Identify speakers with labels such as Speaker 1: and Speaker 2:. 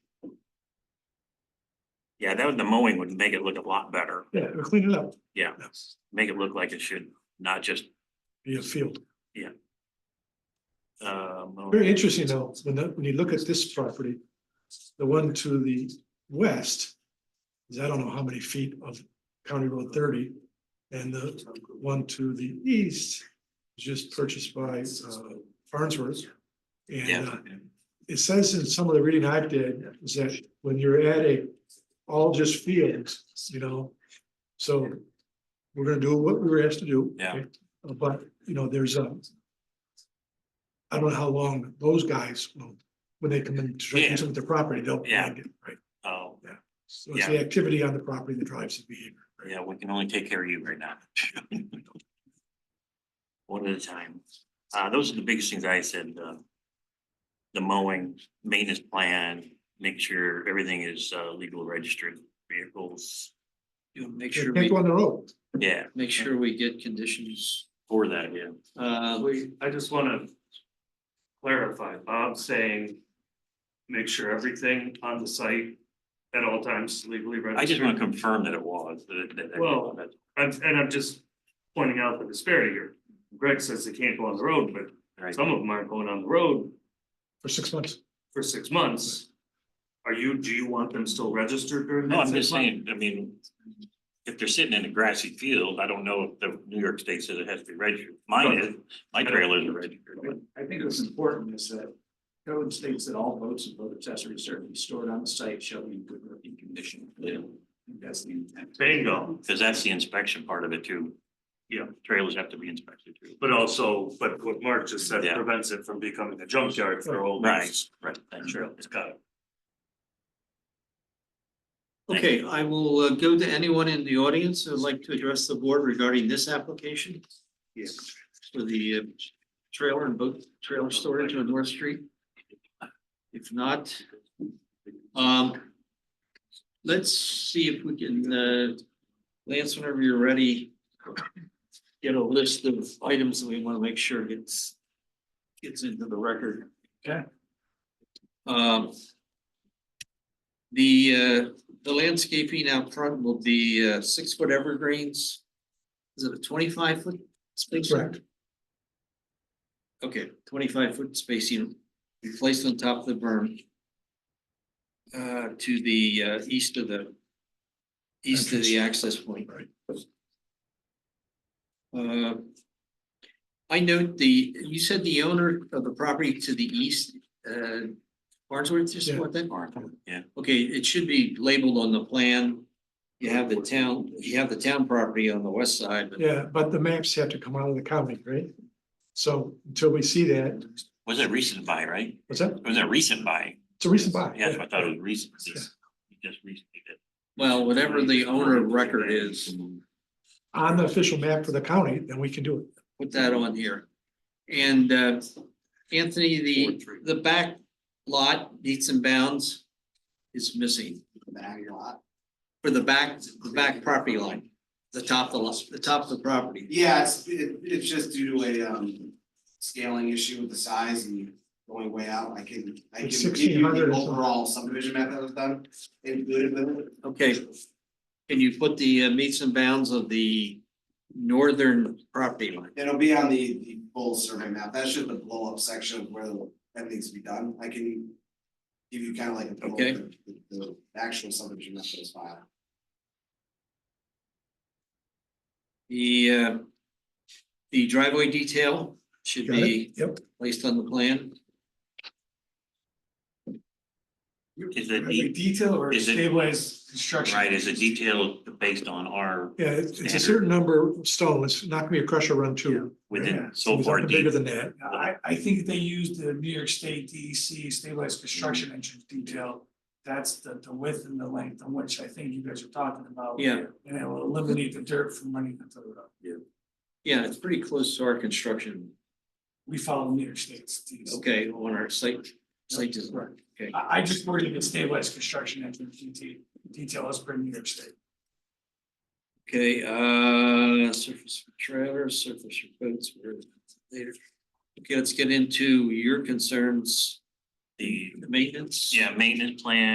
Speaker 1: Yeah, that was the mowing would make it look a lot better,
Speaker 2: Yeah, we clean it up.
Speaker 1: Yeah.
Speaker 2: Yes,
Speaker 1: make it look like it should, not just
Speaker 2: Be a field.
Speaker 1: uh. mowing.
Speaker 2: Very interesting though, when the, when you look at this property, the one to the west. Is I don't know how many feet of County Road thirty, and the one to the east. is Just purchased by uh, Farnsworth. And uh,
Speaker 1: Yeah,
Speaker 2: it says in some of the reading I've did, is that when you're at a, all just fields, you know, so. We're gonna do what we were asked to do.
Speaker 1: Yeah.
Speaker 2: okay? Uh, But, you know, there's a. I don't know how long those guys will, when they come in to
Speaker 1: Yeah.
Speaker 2: do something with the property, they'll.
Speaker 1: Yeah.
Speaker 2: find it, Right,
Speaker 1: oh,
Speaker 2: so it's the activity on the property that drives the behavior.
Speaker 1: yeah, we can only take care of you right now. One at a time. Uh, those are the biggest things I said, uh. The mowing, maintenance plan, make sure everything is uh legal registered vehicles.
Speaker 3: You know, make sure,
Speaker 2: Can't
Speaker 3: we
Speaker 2: go on the road.
Speaker 1: Yeah,
Speaker 3: make sure we get conditions,
Speaker 1: for that, yeah.
Speaker 3: uh,
Speaker 4: We, I just wanna clarify, Bob's saying, make sure everything on the site at all times is legally registered.
Speaker 1: I just want to confirm that it was, that that- that-
Speaker 4: Well, I'm- And I'm just pointing out the disparity here. Greg says they can't go on the road, but
Speaker 1: Right.
Speaker 4: some of them aren't going on the road
Speaker 2: For six months.
Speaker 4: for six months. Are you, do you want them still registered during
Speaker 1: No,
Speaker 4: that
Speaker 1: I'm
Speaker 4: six
Speaker 1: just
Speaker 4: months?
Speaker 1: saying, I mean, if they're sitting in a grassy field, I don't know if the New York State says it has to be registered. Mine is, my trailers are registered. but-
Speaker 5: I think what's important is that code states that all boats and boat accessories are to be stored on the site shall be in good working condition.
Speaker 1: Yeah.
Speaker 5: That's the intent.
Speaker 4: Bingo,
Speaker 1: Cause that's the inspection part of it too.
Speaker 4: Yeah.
Speaker 1: Trailers have to be inspected too.
Speaker 4: but also, but what Mark just said
Speaker 1: Yeah.
Speaker 4: prevents it from becoming a junkyard for old.
Speaker 1: Right, right. thank you.
Speaker 4: Trail, it's got it.
Speaker 1: Thank
Speaker 3: okay, I will uh, go to anyone in the audience who would like to address the board regarding this application.
Speaker 4: Yeah.
Speaker 3: For the uh, trailer and boat trailer storage on North Street. If not, um, let's see if we can, uh, Lance, whenever you're ready, get a list of items that we want to make sure gets, gets into the record.
Speaker 5: Okay.
Speaker 3: Um, the, uh, the landscaping out front will be, uh, six foot evergreens. Is it a twenty-five foot spacing?
Speaker 2: Correct.
Speaker 3: Okay, twenty-five foot spacing, replaced on top of the berm. Uh, to the, uh, east of the, east of the access point.
Speaker 2: Right.
Speaker 3: Uh, I note the, you said the owner of the property to the east, uh, Barnsworth, just
Speaker 2: Yeah.
Speaker 3: what that?
Speaker 1: Yeah.
Speaker 3: Okay, it should be labeled on the plan. You have the town, you have the town property on the west side, but
Speaker 2: Yeah, but the maps have to come out of the county, right? So until we see that,
Speaker 1: Was it recent buy, right?
Speaker 2: what's that?
Speaker 1: It was a recent buy.
Speaker 2: It's a recent buy.
Speaker 1: Yeah, that's what I thought it was recent.
Speaker 2: Yeah.
Speaker 1: Just just recently did.
Speaker 3: well, whatever the owner of record is,
Speaker 2: On the official map for the county, then we can do it.
Speaker 3: put that on here. And uh, Anthony, the, the back lot needs and bounds is missing
Speaker 5: Back lot.
Speaker 3: for the back, the back property line, the top of the, lot- the top of the property.
Speaker 6: Yeah, it's, it, it's just due to a, um, scaling issue with the size and going way out, I can, I can
Speaker 2: It's
Speaker 6: give you
Speaker 2: 1600
Speaker 6: the
Speaker 2: or something.
Speaker 6: overall subdivision map that was done. Included with it.
Speaker 3: Okay, can you put the uh, meets and bounds of the northern property line?
Speaker 6: It'll be on the, the full survey map, that's just the blow up section of where the- that needs to be done, I can. Give you kind of like a. blow-up
Speaker 3: Okay.
Speaker 6: of The, the actual subdivision map that was filed.
Speaker 3: The uh, the driveway detail should
Speaker 2: Got it?
Speaker 3: be
Speaker 2: Yep.
Speaker 3: placed on the plan.
Speaker 1: Is it de-
Speaker 5: detail or
Speaker 1: is it-
Speaker 5: stabilized construction?
Speaker 1: right, is it detailed based on our
Speaker 2: Yeah, it's it's a
Speaker 1: Standard.
Speaker 2: certain number of stones, it's not gonna be a crusher run two.
Speaker 1: within
Speaker 5: Yeah.
Speaker 1: so
Speaker 2: It's
Speaker 1: far
Speaker 2: nothing Bigger
Speaker 1: deep?
Speaker 2: than that,
Speaker 5: I, I think they used the New York State DEC stabilized construction entrance detail. That's the, the width and the length on which I think you guys are talking about.
Speaker 3: Yeah.
Speaker 5: And it will eliminate the dirt from running into the road.
Speaker 3: Yeah, it's pretty close to our construction
Speaker 5: We follow New York State's DEC.
Speaker 3: Okay, on our site, site design, okay,
Speaker 5: I, I just worried about stabilized construction entrance detail, detail as per New York State.
Speaker 3: okay, uh, surface for trailers, surface for boats, we're later. Okay, let's get into your concerns,
Speaker 1: The,
Speaker 3: the maintenance.
Speaker 1: yeah, maintenance plan